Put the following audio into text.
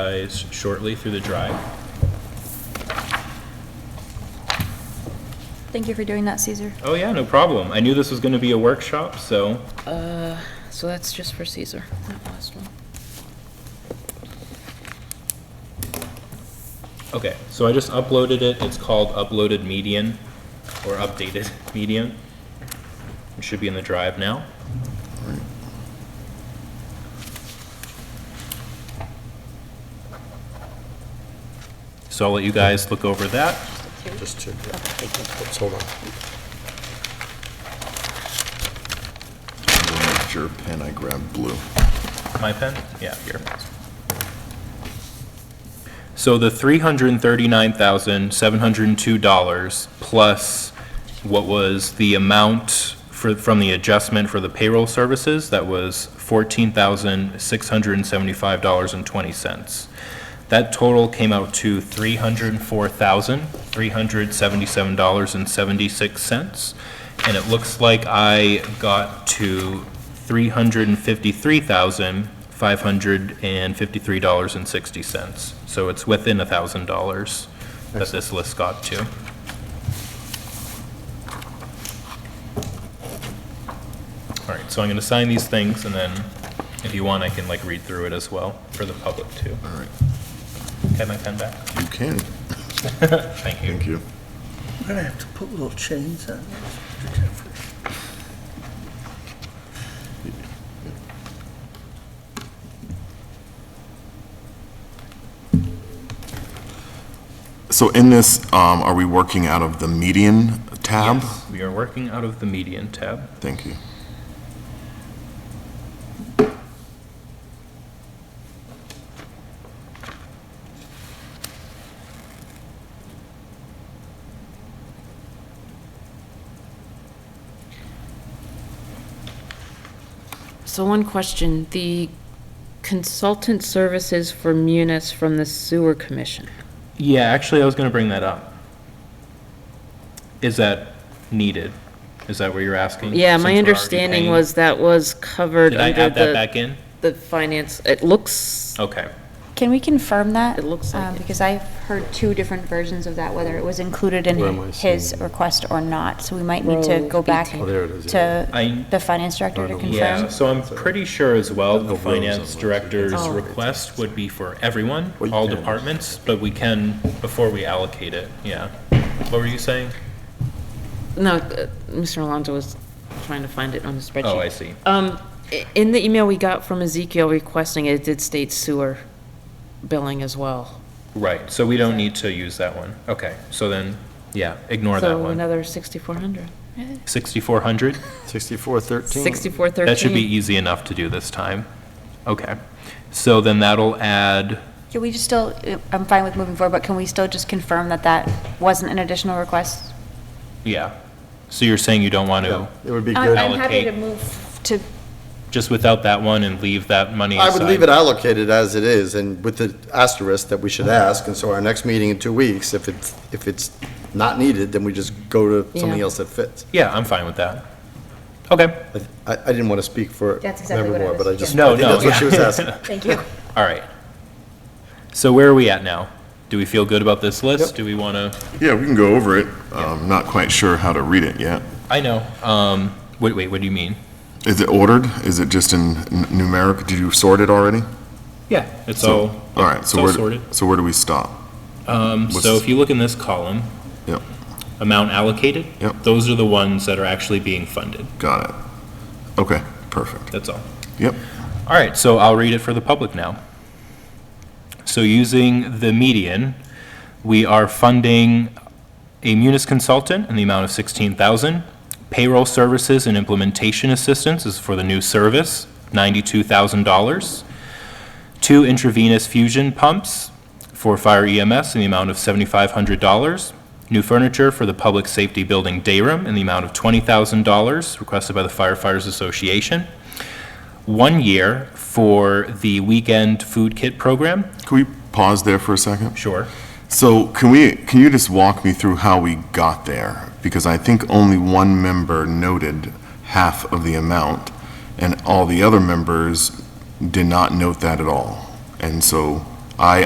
guys shortly through the drive. Thank you for doing that, Caesar. Oh yeah, no problem. I knew this was going to be a workshop, so So that's just for Caesar, that last one. okay. So I just uploaded it. It's called uploaded median or updated median. It should be in the drive now. So I'll let you guys look over that. Just check that. Let's Hold on. I'm gonna make sure pen I grabbed blue. My pen? Yeah, here. So the three hundred and thirty-nine thousand, seven hundred and two dollars plus what was the amount for, from the adjustment for the payroll services, that was fourteen thousand, six hundred and seventy-five dollars and twenty cents. That total came out to three hundred and four thousand, three hundred seventy-seven dollars and seventy-six cents. And it looks like I got to three hundred and fifty-three thousand, five hundred and fifty-three dollars and sixty cents. So it's within a thousand dollars that this list got to. All right, so I'm gonna sign these things and then if you want, I can like read through it as well for the public too. All right, Can I come back? you can. Thank you. Thank you. I'm gonna have to put little chains on. So in this, um, are we working out of the median tab? Yes, We are working out of the median tab. Thank you. So one question, the consultant services for Munis from the sewer commission. Yeah, actually, I was gonna bring that up. Is that needed? Is that what you're asking? Mm-hmm. Yeah, Since my we're already understanding paying- was that was covered Did I under add that the, back in? the finance, it looks, Okay. Can we confirm that? It looks like Um, it. Because I've heard two different versions of that, whether it was included in Where am I his seeing it? request or not. So we might need to Row go back 18. Oh, there it is, I- to the finance director to Yeah. Yeah, confirm. so I'm pretty sure as well, The the rows on finance which it director's is. Oh. request would be for everyone, Well, you all can. departments, but we can, before we allocate it, yeah. What were you saying? no, uh, Mr. Alonso was trying to find it on the spreadsheet. Oh, I see. Um, i- in the email we got from Ezekiel requesting it, it did state sewer billing as well. Right, so we don't need to use that one. Okay, so then, yeah, ignore that So one. another sixty-four hundred. 6,400? Sixty-four thirteen. Sixty-four thirteen. That should be easy enough to do this time. Okay, so then that'll add, Can we just still, uh, I'm fine with moving forward, but can we still just confirm that that wasn't an additional request? yeah. So you're saying you don't want to, It would be I- good. I'm happy to Allocate. move to, just without that one and leave that money I aside? would leave it allocated as it is, and with the asterisk that we should ask, and so our next meeting in two weeks, if it's, if it's not needed, then we just go to something Yeah. else that fits. Yeah, I'm fine with that. Okay, I, I didn't want to speak for That's exactly what I Member Moore, was- but I just, yeah. No, I think that's no, what she was asking. thank you. all right. So where are we at now? Do we feel good about this list? Do we want to, Yeah, we can go over it. I'm not quite sure how to read it yet. I know, um, wait, wait, what do you mean? Is it ordered? Is it just in n- numeric? Did you sort it already? Yeah. It's all, All right, it's so all where, sorted. so where do we stop? Um, so What's- if you look in this column, Yep, amount allocated, Yep. those are the ones that are actually being funded, got it. Okay, perfect. that's all. Yep. All right, so I'll read it for the public now. So using the median, we are funding a munis consultant in the amount of 16,000. Payroll services and implementation assistance is for the new service, $92,000. Two intravenous fusion pumps for fire EMS in the amount of $7,500. New furniture for the public safety building day room in the amount of $20,000 requested by the firefighters association one year for the weekend food kit program. Can we pause there for a second? Sure. So can we, can you just walk me through how we got there? Because I think only one member noted half of the amount, and all the other members did not note that at all. And so